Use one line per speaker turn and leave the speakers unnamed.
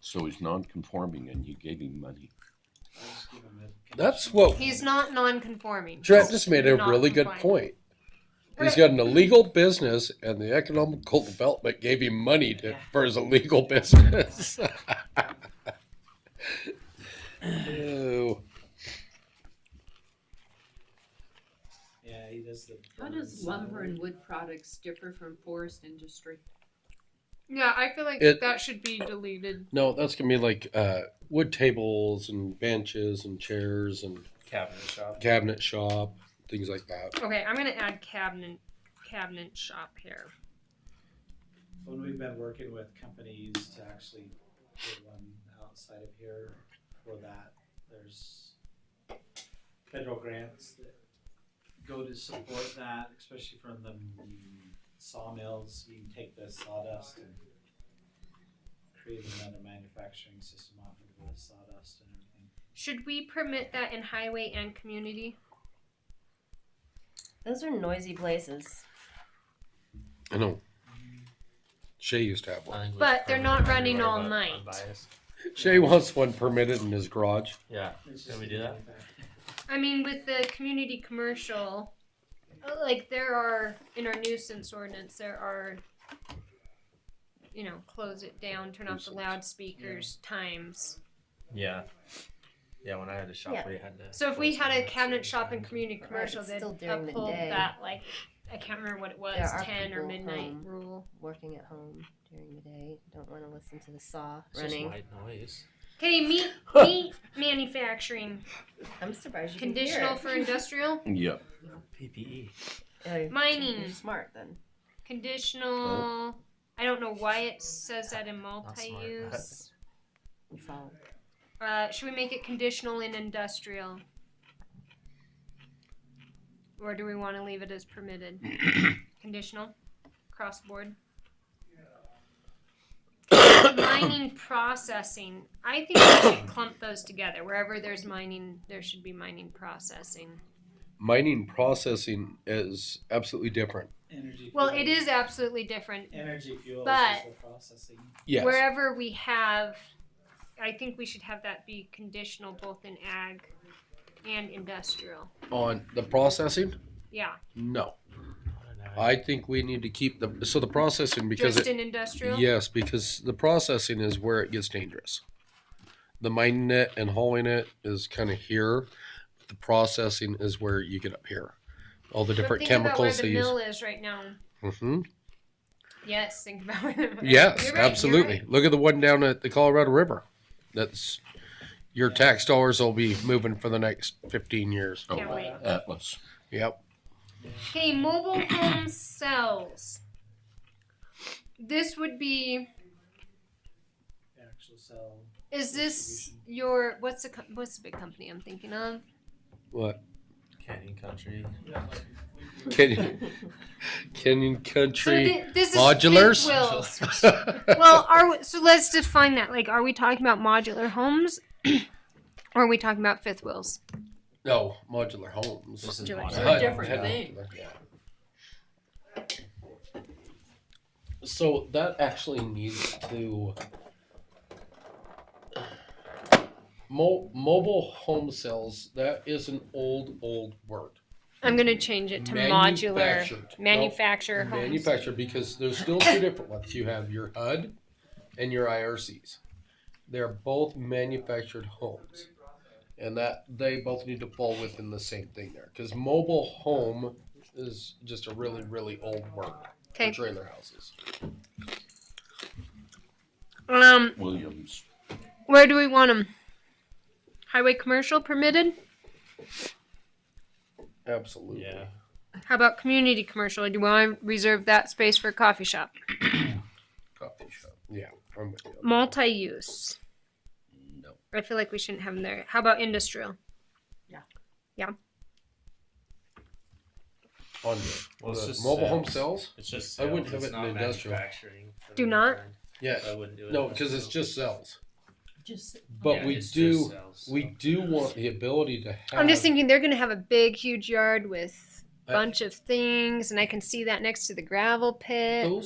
So he's non-conforming and you gave him money.
That's what
He's not non-conforming.
Trent just made a
Not
really good point.
compliant.
He's
Right.
got an illegal business, and the economical development gave him money to, for his illegal business. Ew.
Yeah, he does the.
How does lumber and wood products differ from forest industry?
Yeah, I feel like
It-
that should be deleted.
No, that's gonna be like uh, wood tables and benches and chairs and
cabinet shop?
cabinet shop things like that.
Okay, I'm gonna add cabinet cabinet shop here.
When we've been working with companies to actually get one outside of here for that, there's federal grants that go to support that, especially from the sawmills. You can take the sawdust and create another manufacturing system off of the sawdust and everything.
Should we permit that in highway and community?
Those are noisy places.
I know. Shay used to have one.
But they're not running all night.
Shay wants one permitted in his garage.
Yeah.
It's
Can
just
we do that?
I mean, with the community commercial, uh, like there are in our nuisance ordinance, there are, you know, close it down, turn off the loudspeakers, times.
Yeah. Yeah, when I had a shop,
Yeah.
we had to.
So if we
close
had a
down at
cabinet
certain
shop and
times.
community
Right,
commercial,
it's
they'd
still during the
uphold
day.
that like I can't remember what it was,
There are
ten or
people
midnight
home.
rule.
Working at home during the day, don't want to listen to the saw
It's just
running.
white noise.
Okay, meat meat manufacturing
I'm surprised you
conditional
Can
for industrial
Yeah,
PPE.
hear it. Oh,
mining.
You're smart then.
conditional. I don't know why it says that in
smart, but-
multi-use.
You follow.
Uh, should we make it conditional in industrial? Or do we want to leave it as permitted? conditional, cross board. mining processing. I think we should clump those together. Wherever there's mining, there should be mining processing.
Mining processing is absolutely different.
Energy.
Well,
fuel-
it is absolutely different.
Energy fuels
but-
is the processing.
Yes.
Wherever we have, I think we should have that be conditional both in ag and industrial.
On the processing?
Yeah,
No.
I don't know.
I think we need to keep the so the processing because
just
it,
in industrial.
yes, because the processing is where it gets dangerous. The mining it and hauling it is kind of here. The processing is where you get up here. All the
But
different
think
chemicals they
about where the
use.
mill is right now.
hmm
Yes, think about where the mill.
Yes,
You're right, you're
absolutely.
right.
Look at the one down at the Colorado River. That's your tax dollars will be moving for the next 15 years.
Oh,
Can't wait.
Atlas.
Yep.
Okay, mobile home cells. This would be.
The actual cell.
Is this your what's the co- what's the big company I'm thinking of?
What?
Canyon country.
Canyon, Canyon Country
thi- this
modulars?
Goodwill's. well, are we, so let's define that. Like, are we talking about modular homes, or are we talking about fifth wheels?
no, modular homes.
This is
Do it.
modern.
Hut,
different
hut.
thing.
So that actually needs to. Mo- mobile home sales, that is an old, old word.
I'm gonna change it to modular
Manufactured. No,
manufacturer homes.
Manufactured, because there's still two different ones. You have your HUD and your IRCs. They're both manufactured homes. And that they both need to fall within the same thing there. Because mobile home is just a really, really old word for
Okay.
trailer houses.
Um,
Williams.
Where do we want them? Highway commercial permitted?
Absolutely.
Yeah.
How about community commercial? Do you want to reserve that space for a coffee shop?
Coffee shop.
Yeah. I'm with you.
Multi use.
No.
I feel like we shouldn't have them there. How about industrial?
On you.
Well,
The
it's just
mobile home
sales.
sales?
It's just.
I wouldn't
sales,
have
it's
it in
not
industrial.
manufacturing.
Do not?
Yeah.
I wouldn't do it.
No, because it's just sales.
Just
But
Yeah,
we
it's just
do
sales,
we
so.
do want the ability to have
I'm just thinking they're going to have a big, huge yard with
Um, I-
bunch of things, and I can see that next to the gravel pit.
Those